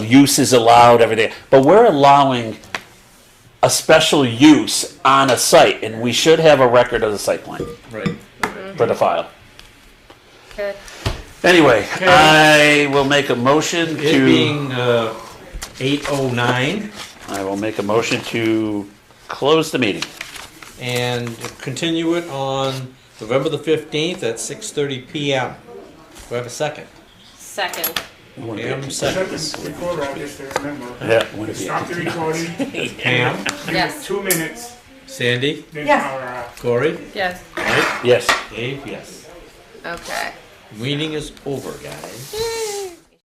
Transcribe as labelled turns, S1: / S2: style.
S1: uses allowed, everything, but we're allowing a special use on a site, and we should have a record of the site plan
S2: Right.
S1: for the file.
S3: Good.
S1: Anyway, I will make a motion
S2: It
S1: to,
S2: being uh, 8:09
S1: I will make a motion to close the meeting.
S2: and continue it on November the 15th at 6:30 PM. Do I have a second?
S3: Second.
S2: Pam
S4: Shut
S2: seconds.
S4: the recorder off just to remember.
S1: Yeah. wouldn't it be-
S4: Stop the recording,
S2: Pam,
S4: give it
S3: Yes.
S4: two minutes,
S2: Sandy,
S4: then uh,
S5: Yes.
S4: power off.
S2: Corey,
S3: Yes.
S2: Mike,
S1: Yes.
S2: Dave, yes.
S3: Okay.
S2: Meeting is over, guys.